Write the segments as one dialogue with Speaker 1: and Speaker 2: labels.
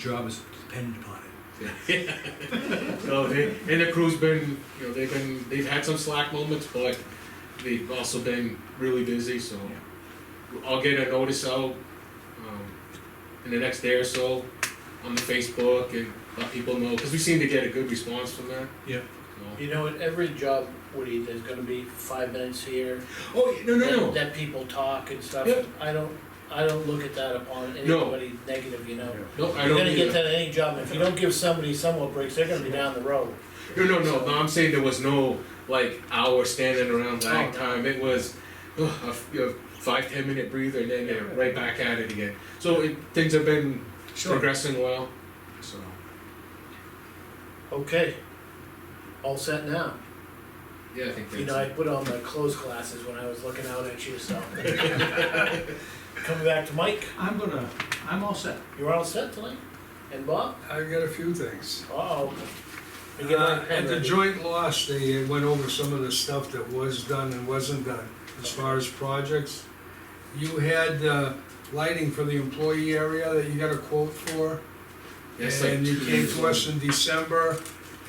Speaker 1: job is dependent upon it.
Speaker 2: So they, and the crew's been, you know, they've been, they've had some slack moments, but they've also been really busy, so. I'll get a notice out, um, in the next day or so on the Facebook and let people know, cause we seem to get a good response from that.
Speaker 1: Yeah.
Speaker 2: so.
Speaker 3: You know, at every job, Woody, there's gonna be five minutes here.
Speaker 2: Oh, no, no,
Speaker 3: that-
Speaker 2: no,
Speaker 3: That people talk and stuff.
Speaker 2: Yep.
Speaker 3: I don't, I don't look at that upon
Speaker 2: No.
Speaker 3: anybody negative, you know.
Speaker 2: no, I
Speaker 3: You're
Speaker 2: don't
Speaker 3: gonna get
Speaker 2: either.
Speaker 3: that at any job, if you don't give somebody somewhat breaks, they're gonna be down the road.
Speaker 2: No, no, no, no, I'm saying there was no, like, hour standing around lag
Speaker 3: Oh.
Speaker 2: time, it was, ugh, a f- you know, five, ten minute breather and then they're right back at it again. So it, things have been progressing well, so.
Speaker 3: Okay, all set now.
Speaker 2: Yeah, I think
Speaker 3: You know, I
Speaker 2: that's,
Speaker 3: put on my clothes glasses when I was looking out at you, so. Coming back to Mike,
Speaker 1: I'm gonna, I'm all set.
Speaker 3: you're all set tonight? And Bob?
Speaker 4: I've got a few things.
Speaker 3: Uh-oh. We get
Speaker 4: Uh,
Speaker 3: my pen
Speaker 4: At the
Speaker 3: ready.
Speaker 4: joint loss, they went over some of the stuff that was done and wasn't done, as far as projects. You had, uh, lighting for the employee area that you got a quote for,
Speaker 2: that's like.
Speaker 4: and you
Speaker 2: two
Speaker 4: came
Speaker 2: years
Speaker 4: to us
Speaker 2: old.
Speaker 4: in December,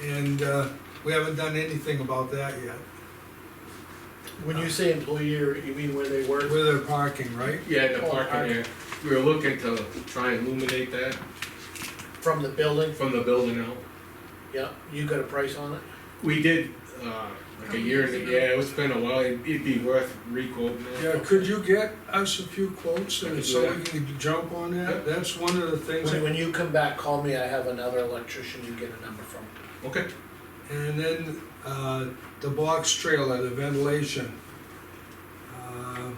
Speaker 4: and, uh, we haven't done anything about that yet,
Speaker 3: When you say employee, you mean where they work?
Speaker 4: with their parking, right?
Speaker 2: Yeah, in the
Speaker 3: Oh, I-
Speaker 2: parking area, we were looking to try and illuminate that
Speaker 3: From the building?
Speaker 2: from the building out.
Speaker 3: Yeah, you got a price on it?
Speaker 2: We did, uh, like a year, and yeah, it's been a while, it'd it'd be worth recording
Speaker 4: Yeah, could you get us a few quotes, and so we
Speaker 2: Yeah.
Speaker 4: can jump on that? That's one of the things.
Speaker 3: When, when you come back, call me, I have another electrician you get a number from.
Speaker 2: Okay.
Speaker 4: And then, uh, the box trailer, the ventilation. Uh,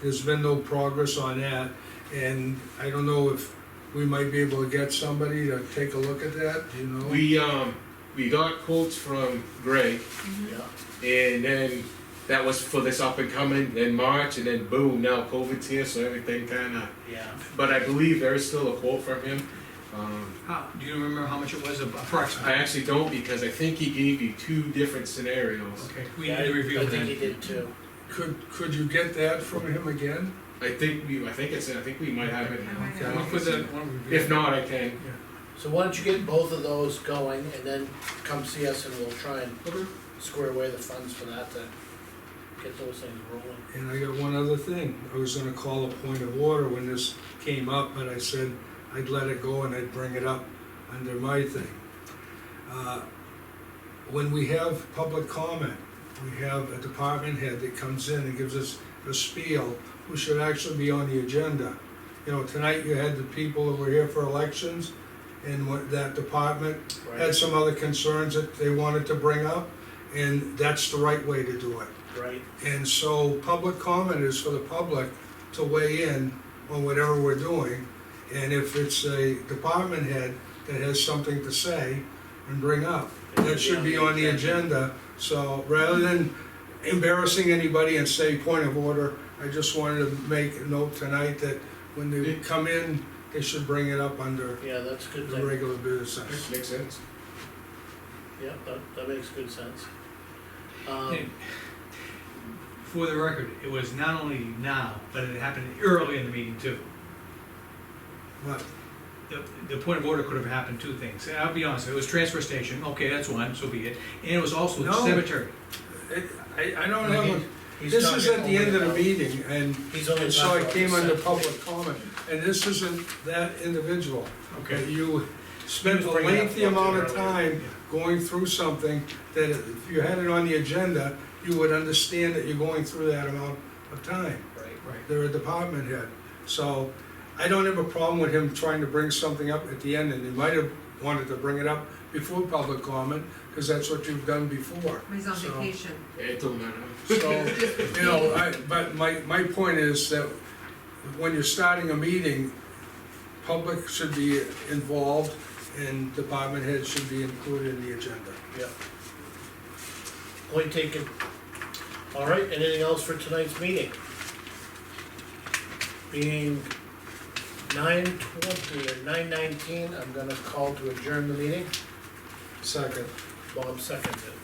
Speaker 4: There's been no progress on that, and I don't know if we might be able to get somebody to take a look at that, do you know?
Speaker 2: We, um, we got quotes from Greg,
Speaker 3: Yeah.
Speaker 2: and then that was for this up and coming, then March, and then boom, now COVID's here, so everything kinda,
Speaker 3: Yeah.
Speaker 2: but I believe there is still a quote from him. Um,
Speaker 1: How, do you remember how much it was
Speaker 2: I
Speaker 1: approximately?
Speaker 2: actually don't, because I think he gave you two different scenarios.
Speaker 1: Okay, we
Speaker 3: Yeah,
Speaker 1: need to
Speaker 3: I-
Speaker 1: review
Speaker 3: I think he
Speaker 1: that.
Speaker 3: did too.
Speaker 4: Could, could you get that from him again?
Speaker 2: I think we, I think it's, I think we might have it now.
Speaker 4: Okay.
Speaker 1: I'll put that, why don't we-
Speaker 2: If not, I can.
Speaker 3: So why don't you get both of those going and then come see us and we'll try and square away the funds for that to get those things rolling.
Speaker 4: And I got one other thing, I was gonna call a point of order when this came up, but I said I'd let it go and I'd bring it up under my thing. Uh, When we have public comment, we have a department head that comes in and gives us a spiel, who should actually be on the agenda. You know, tonight you had the people that were here for elections, and what, that department had
Speaker 3: Right,
Speaker 4: some other concerns that they wanted to bring up, and that's the right way to do it.
Speaker 3: right.
Speaker 4: And so public comment is for the public to weigh in on whatever we're doing. And if it's a department head that has something to say and bring up, that should be on the agenda. So rather than embarrassing anybody and say point of order, I just wanted to make a note tonight that when they come in, they should bring it up under
Speaker 3: Yeah, that's a good
Speaker 4: the
Speaker 3: thing.
Speaker 4: regular business.
Speaker 2: Makes sense.
Speaker 3: Yeah, that, that makes good sense.
Speaker 1: Hey,
Speaker 3: Um,
Speaker 1: For the record, it was not only now, but it happened early in the meeting too.
Speaker 4: But
Speaker 1: The, the point of order could have happened two things. I'll be honest, it was transfer station, okay, that's one, so be it. And it was also
Speaker 4: No.
Speaker 1: cemetery.
Speaker 4: it- I, I don't know,
Speaker 3: he's
Speaker 4: this is
Speaker 3: talking
Speaker 4: at the end of the
Speaker 3: only
Speaker 4: meeting and
Speaker 3: about- He's only.
Speaker 4: And so I
Speaker 3: talking
Speaker 4: came
Speaker 3: about
Speaker 4: under
Speaker 3: the
Speaker 4: public comment, and this isn't that individual.
Speaker 1: Okay.
Speaker 4: You spent a
Speaker 3: Bring it up
Speaker 4: lengthy amount of
Speaker 1: Yeah.
Speaker 4: time going through something that if you had it on the agenda, you would understand that you're going through that amount of time.
Speaker 3: Right.
Speaker 1: Right.
Speaker 4: They're a department head. So I don't have a problem with him trying to bring something up at the end, and he might have wanted to bring it up before public comment, because that's what you've done before.
Speaker 5: He's on
Speaker 4: So-
Speaker 5: vacation.
Speaker 2: It don't matter.
Speaker 4: So, you know, I, but my, my point is that when you're starting a meeting, public should be involved and department heads should be included in the agenda.
Speaker 3: Yeah. Point taken. All right, anything else for tonight's meeting? Being nine twenty or nine nineteen, I'm gonna call to adjourn the meeting.
Speaker 4: Second.
Speaker 3: Bob seconded.